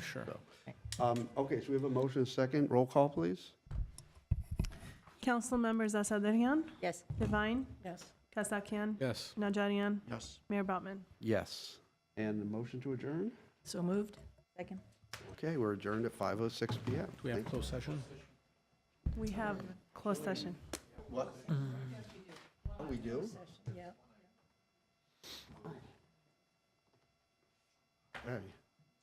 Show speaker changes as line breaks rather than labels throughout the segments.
sure.
Um, Okay, so we have a motion second. Roll call, please.
Council members Asadrian,
Yes.
Divine,
Yes.
Kasakian,
Yes.
Najarian,
Yes.
Mayor Bautman.
Yes. And the motion to adjourn?
So moved? Second.
Okay, we're adjourned at 5:06 PM.
Do we have closed session?
We have closed session.
What? Oh, We do?
Yeah.
Okay.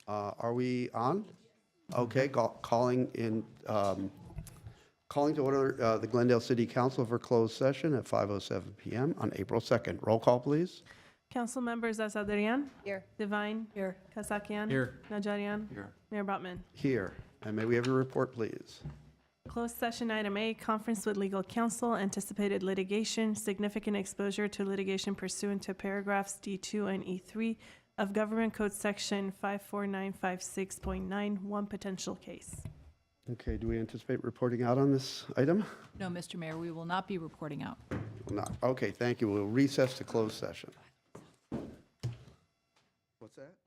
Uh, Are we on?
Mm-hmm.
Okay, call- calling in, um, calling to order uh, the Glendale City Council for closed session at 5:07 PM on April 2nd. Roll call, please.
Council members Asadrian,
Here.
Divine,
Here.
Kasakian,
Here.
Najarian, Mayor Bautman.
Here. And may we have your report, please?
Closed session item A, conference with legal counsel, anticipated litigation, significant exposure to litigation pursuant to paragraphs D2 and E3 of Government Code Section 54956.9, one potential case.
Okay, do we anticipate reporting out on this item?
No, Mr. Mayor, we will not be reporting out.
Will Not. Okay, thank you. We'll recess to closed session. What's that?